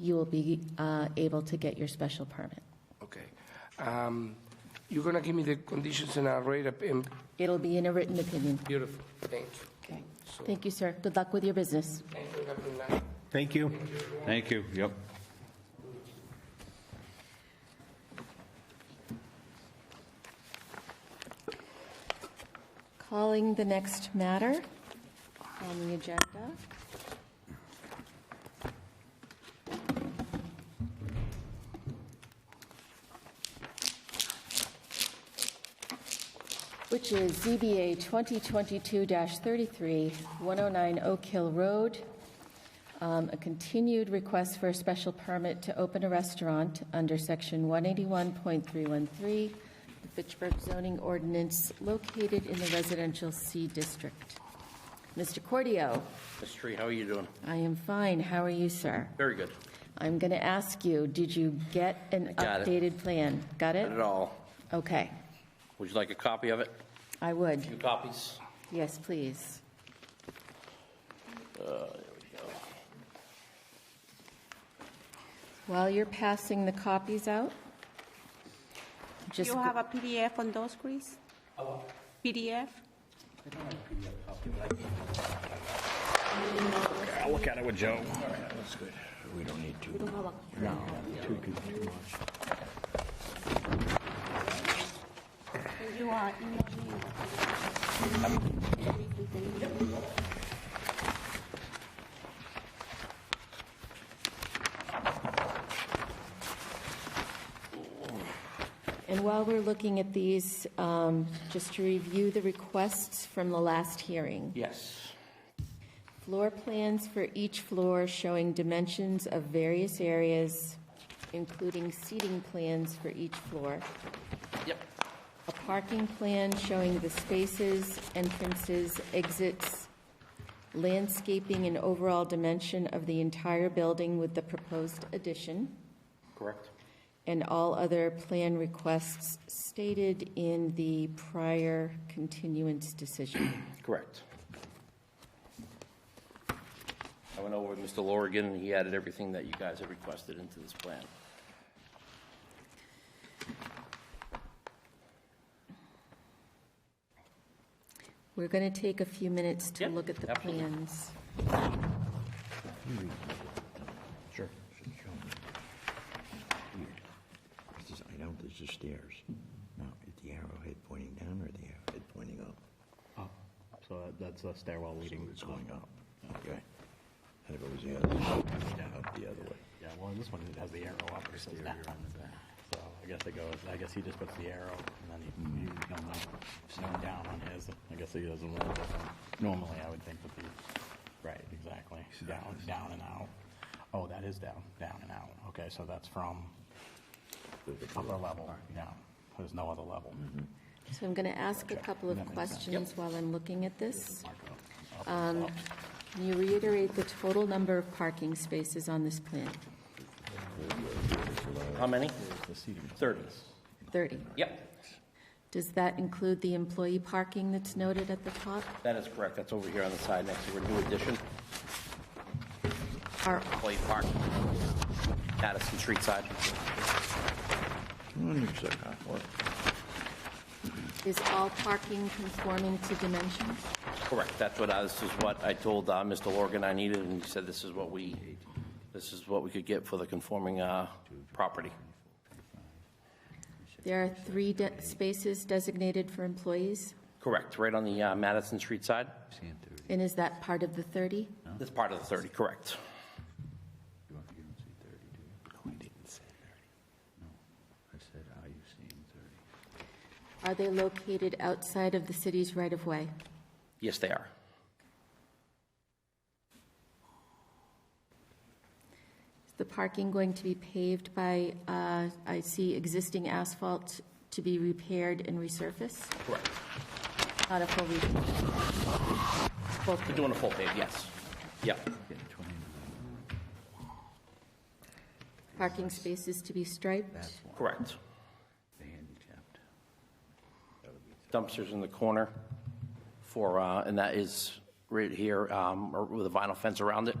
you will be uh, able to get your special permit. Okay. Um, You're going to give me the conditions and I'll write up, and It'll be in a written opinion. beautiful, thank you. Okay. So- Thank you, sir. Good luck with your business. Thank you, have a good night. Thank you. Thank you, yep. Calling the next matter on the agenda. Which is ZBA 2022-33, 109 Oak Hill Road. Um, A continued request for a special permit to open a restaurant under Section 181.313, the Fitchburg zoning ordinance located in the residential C district. Mr. Cordio, Mr. Tree, how are you doing? I am fine. How are you, sir? Very good. I'm going to ask you, did you get an got it. updated plan? Got Not at it? all. Okay, Would you like a copy of it? I would. Two copies? Yes, please. While you're passing the copies out, just, You have a PDF on those, Chris? PDF? I'll look at it with Joe. You are emailing. and while we're looking at these, um, just to review the requests from the last hearing. Yes. Floor plans for each floor showing dimensions of various areas, including seating plans for each floor. Yep. a parking plan showing the spaces, entrances, exits, landscaping and overall dimension of the entire building with the proposed addition, Correct. and all other plan requests stated in the prior continuance decision. Correct. I went over with Mr. Lorigan, and he added everything that you guys had requested into this plan. We're going to take a few minutes to Yep, look at the absolutely. plans. Sure. It's just, I don't, there's just stairs. Now, is the arrowhead pointing down or the arrowhead pointing up? So that's a stairwell leading. It's going up. Okay. And it goes the other, down up the other way. Yeah, well, this one has the arrow up, it says down. So I guess it goes, I guess he just puts the arrow, and then he, Mm-hmm. he's going like, snowing down on his. I guess he doesn't want it different. Normally, I would think that the, right, exactly, down, down and out. Oh, that is down, down and out. Okay, so that's from upper level, yeah. There's no other level. So I'm going to ask a couple of That makes sense. questions while I'm looking at this. Um, Mark it up. Up is up. Can you reiterate the total number of parking spaces on this plan? How many? The seating. Thirty. 30. Yep, Does that include the employee parking that's noted at the top? that is correct. That's over here on the side next to our new addition, Are, Clay Park, Addison Street side. Come on, you sucker. What? is all parking conforming to dimensions? Correct, that's what I, this is what I told uh, Mr. Lorgan I needed, and he said this is what we, this is what we could get for the conforming uh, property. There are three de- spaces designated for employees, Correct, right on the uh, Madison Street side. and is that part of the 30? That's part of the 30, correct. Are they located outside of the city's right-of-way? Yes, they are. Is the parking going to be paved by, uh, I see existing asphalt to be repaired and resurfaced? Correct. Not a full repair? Full We're doing a full pave, yes. Yep, Parking spaces to be striped? correct. Dumpsters in the corner for, uh, and that is right here um, or with a vinyl fence around it.